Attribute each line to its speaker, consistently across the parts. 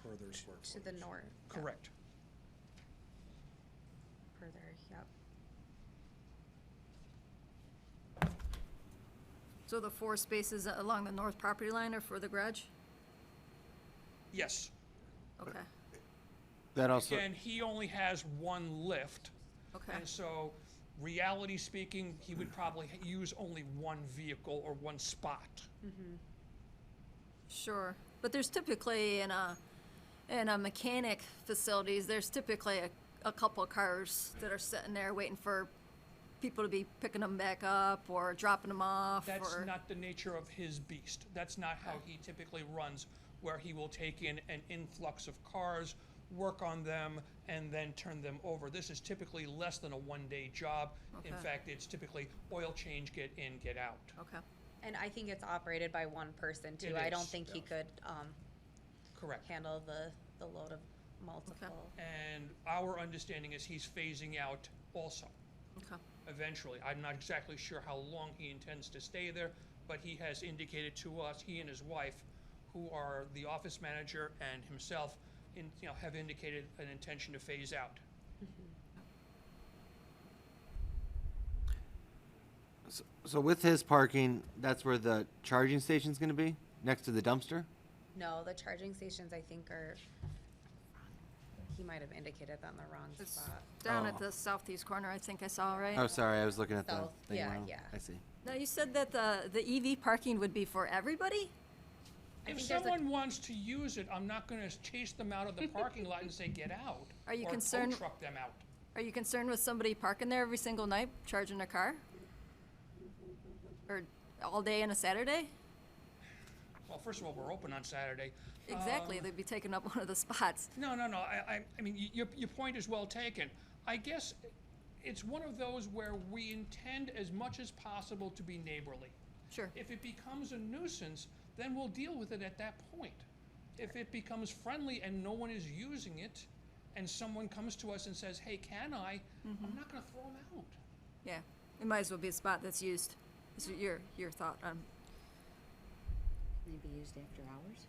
Speaker 1: square footage.
Speaker 2: to the north. yeah,
Speaker 3: Correct.
Speaker 2: Further, yep.
Speaker 4: So the four spaces along the north property line are for the garage?
Speaker 3: Yes.
Speaker 4: Okay,
Speaker 5: That also,
Speaker 3: And he only has one lift.
Speaker 4: okay,
Speaker 3: And so, reality speaking, he would probably h- use only one vehicle or one spot.
Speaker 4: sure. But there's typically in a, in a mechanic facilities, there's typically a, a couple cars that are sitting there waiting for people to be picking them back up or dropping them off
Speaker 3: That's
Speaker 4: or,
Speaker 3: not the nature of his beast. That's not how he typically runs, where he will take in an influx of cars, work on them, and then turn them over. This is typically less than a one-day job. In
Speaker 4: Okay.
Speaker 3: fact, it's typically oil change, get in, get out.
Speaker 4: okay.
Speaker 2: And I think it's operated by one person too.
Speaker 3: It
Speaker 2: I don't
Speaker 3: is,
Speaker 2: think he could, um,
Speaker 3: Correct.
Speaker 2: handle the, the load of multiple.
Speaker 3: And our understanding is he's phasing out also.
Speaker 4: Okay.
Speaker 3: eventually. I'm not exactly sure how long he intends to stay there, but he has indicated to us, he and his wife, who are the office manager and himself, in, you know, have indicated an intention to phase out.
Speaker 5: so with his parking, that's where the charging station's gonna be, next to the dumpster?
Speaker 2: No, the charging stations I think are, he might have indicated that in the wrong
Speaker 4: It's
Speaker 2: spot.
Speaker 4: down
Speaker 5: Oh.
Speaker 4: at the southeast corner, I think I saw, right?
Speaker 5: Oh, sorry, I was looking at the
Speaker 2: South,
Speaker 5: thing
Speaker 2: yeah,
Speaker 5: wrong.
Speaker 2: yeah.
Speaker 5: I see.
Speaker 4: Now, you said that the, the EV parking would be for everybody?
Speaker 2: I
Speaker 3: If
Speaker 2: think there's a-
Speaker 3: someone wants to use it, I'm not gonna chase them out of the parking lot and say, get out.
Speaker 4: Are you
Speaker 3: or tow
Speaker 4: concerned-
Speaker 3: truck them out.
Speaker 4: Are you concerned with somebody parking there every single night, charging their car? Or all day on a Saturday?
Speaker 3: Well, first of all, we're open on Saturday.
Speaker 4: Exactly, they'd be taking up one of the spots.
Speaker 3: No, no, no. I, I, I mean, y- your, your point is well taken. I guess it's one of those where we intend as much as possible to be neighborly.
Speaker 4: Sure,
Speaker 3: If it becomes a nuisance, then we'll deal with it at that point. If it becomes friendly and no one is using it, and someone comes to us and says, hey, can I?
Speaker 4: Mm-hmm.
Speaker 3: I'm not gonna throw them out.
Speaker 4: yeah. It might as well be a spot that's used. Is your, your thought on,
Speaker 6: Can they be used after hours?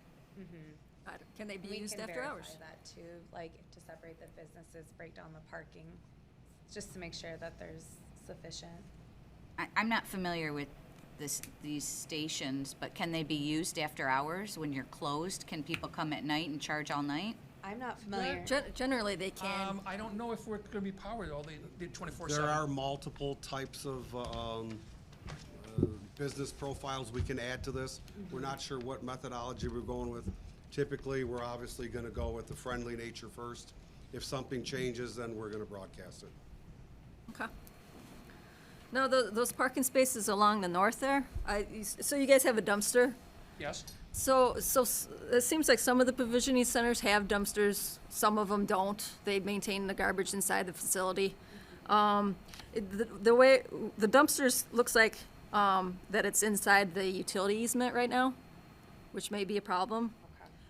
Speaker 4: I don't- can they be
Speaker 2: We
Speaker 4: used
Speaker 2: can
Speaker 4: after
Speaker 2: verify
Speaker 4: hours?
Speaker 2: That too, like to separate the businesses, break down the parking, just to make sure that there's sufficient.
Speaker 6: I, I'm not familiar with this, these stations, but can they be used after hours when you're closed? Can people come at night and charge all night?
Speaker 2: I'm not familiar.
Speaker 4: Gen- Generally, they can.
Speaker 3: Um, I don't know if we're gonna be powered all the, the twenty-four seven.
Speaker 1: There are multiple types of um, uh, business profiles we can add to this. We're not sure what methodology we're going with. Typically, we're obviously going to go with the friendly nature first. If something changes, then we're going to broadcast it.
Speaker 4: Okay. No, tho- those parking spaces along the north there, I, you s- so you guys have a dumpster?
Speaker 3: Yes?
Speaker 4: So, so s- it seems like some of the provisioning centers have dumpsters, some of them don't. They maintain the garbage inside the facility. Um, it- the, the way, the dumpsters looks like, um, that it's inside the utility easement right now, which may be a problem.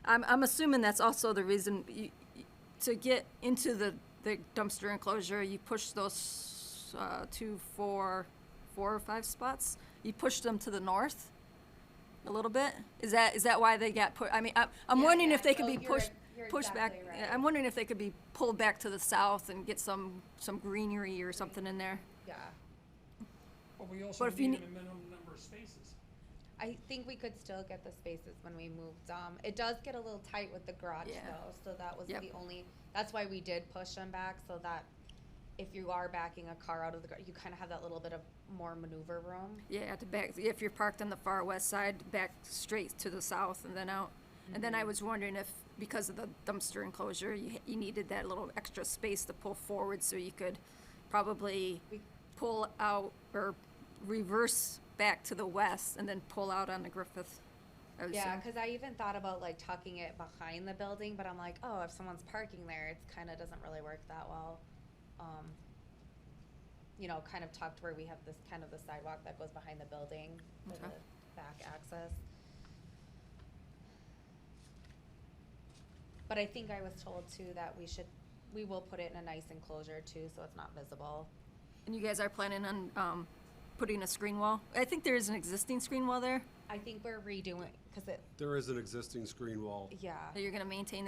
Speaker 4: I'm, I'm assuming that's also the reason, you, you- to get into the, the dumpster enclosure, you push those, uh, two, four, four or five spots? You push them to the north? a little bit? Is that, is that why they got put, I mean, I- I'm
Speaker 2: Yeah,
Speaker 4: wondering
Speaker 2: yeah,
Speaker 4: if they could
Speaker 2: no,
Speaker 4: be
Speaker 2: you're-
Speaker 4: pushed,
Speaker 2: you're
Speaker 4: pushed back.
Speaker 2: exactly
Speaker 4: yeah,
Speaker 2: right.
Speaker 4: I'm wondering if they could be pulled back to the south and get some, some greenery or something in there.
Speaker 2: Yeah.
Speaker 3: But we also
Speaker 4: But if you
Speaker 3: need a
Speaker 4: ne-
Speaker 3: minimum number of spaces.
Speaker 2: I think we could still get the spaces when we moved. Um, it does get a little tight with the garage
Speaker 4: Yeah.
Speaker 2: though, so that was
Speaker 4: Yep.
Speaker 2: the only, that's why we did push them back so that if you are backing a car out of the gar you kind of have that little bit of more maneuver room.
Speaker 4: Yeah, at the back, if you're parked on the far west side, back straight to the south and then out. And then I
Speaker 2: Mm-hmm.
Speaker 4: was wondering if, because of the dumpster enclosure, you, you needed that little extra space to pull forward so you could probably
Speaker 2: We-
Speaker 4: pull out or reverse back to the west and then pull out on the Griffith. I would
Speaker 2: Yeah,
Speaker 4: assume.
Speaker 2: because I even thought about like tucking it behind the building, but I'm like, oh, if someone's parking there, it's kind of doesn't really work that well. Um, you know, kind of tucked where we have this kind of the sidewalk that goes behind the building for
Speaker 4: Okay.
Speaker 2: the back access. But I think I was told too that we should, we will put it in a nice enclosure too, so it's not visible.
Speaker 4: And you guys are planning on um, putting a screen wall? I think there is an existing screen wall there.
Speaker 2: I think we're redoing, because it,
Speaker 1: There is an existing screen wall.
Speaker 2: yeah.
Speaker 4: that You're going to maintain